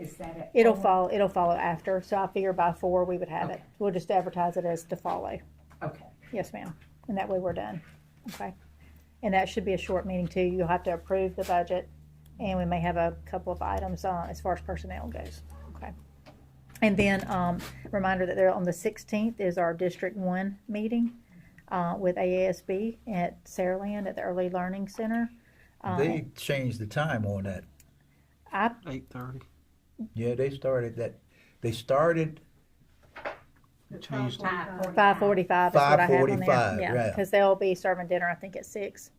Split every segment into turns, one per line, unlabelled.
that it? Oh,
It'll
forward?
follow, it'll follow after, so I figure by four we would have it.
Okay.
We'll just advertise it as to follow.
Okay,
Yes, ma'am. And that way we're done. Okay. And that should be a short meeting too. You'll have to approve the budget and we may have a couple of items uh, as far as personnel goes. Okay. And then um, reminder that there on the 16th is our District 1 meeting uh, with AASB at Saraland at the Early Learning Center. Uh,
They changed the time on that.
I
Eight thirty.
Yeah, they started that, they started,
Tuesday.
Five forty-five is what I have on
5:45,
there. Yeah,
right.
because they'll be serving dinner, I think, at six.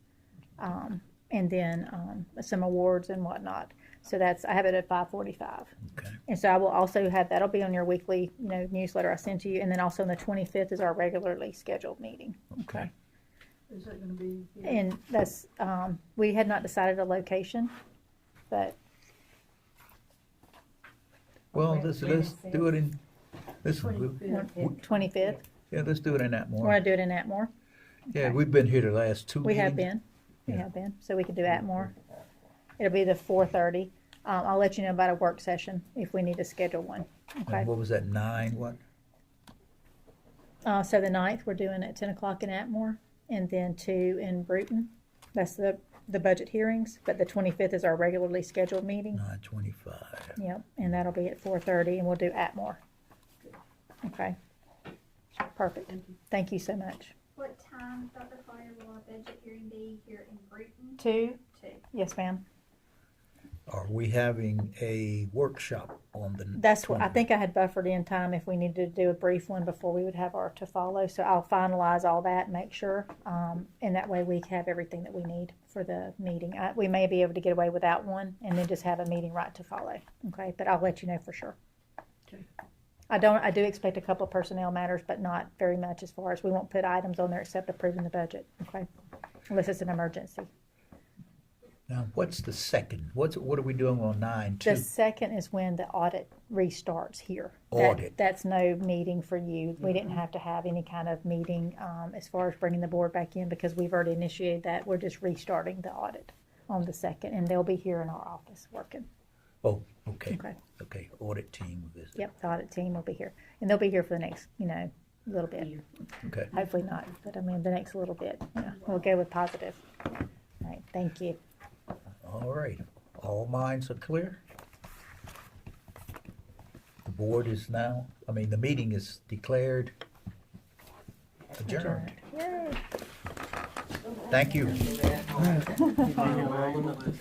Um, and then, um, some awards and whatnot. So that's, I have it at five forty-five.
Okay.
And so I will also have, that'll be on your weekly, you know, newsletter I send to you. And then also on the twenty-fifth is our regularly scheduled meeting.
okay.
Is that gonna be? here?
And that's, um, we had not decided a location, but
Well,
Wait,
let's,
wait a
let's
second.
do it in, let's,
Twenty-fifth.
twenty-fifth,
yeah, let's do it in that
we want
morning.
to do it in Atmore.
Yeah, we've been here the last two
We have
meetings.
been, we
Yeah.
have been, so we could do Atmore. It'll be the four thirty. Um, I'll let you know about a work session if we need to schedule one. Okay,
And What was that, nine, what?
uh, so the ninth, we're doing at ten o'clock in Atmore and then two in Bruton. That's the, the budget hearings, but the twenty-fifth is our regularly scheduled meeting.
Nine twenty-five.
Yep, and that'll be at four thirty and we'll do Atmore. Okay. Perfect. Thank you so much.
What time, Dr. Collier, will our budget hearing be here in Bruton?
Two?
Two.
Yes, ma'am.
Are we having a workshop on the?
That's what, I
20th?
think I had buffered in time if we needed to do a brief one before we would have our to follow. So I'll finalize all that, make sure. Um, and that way we have everything that we need for the meeting. I, we may be able to get away without one and then just have a meeting right to follow. Okay, but I'll let you know for sure.
Okay.
I don't, I do expect a couple of personnel matters, but not very much as far as, we won't put items on there except approving the budget, okay? Unless it's an emergency.
Now, what's the second? What's, what are we doing on nine, two?
The second is when the audit restarts here. That-
Audit.
That's no meeting for you. We didn't have to have any kind of meeting um, as far as bringing the board back in because we've already initiated that. We're just restarting the audit on the second, and they'll be here in our office working.
Oh, okay,
Okay.
okay, audit team visit.
Yep, the audit team will be here, and they'll be here for the next, you know, little bit.
Year.
Okay.
Hopefully not, but I mean, the next little bit. Yeah, we'll go with positive. All right, thank you.
All right, all minds are clear? The board is now, I mean, the meeting is declared adjourned.
Yay.
Thank you.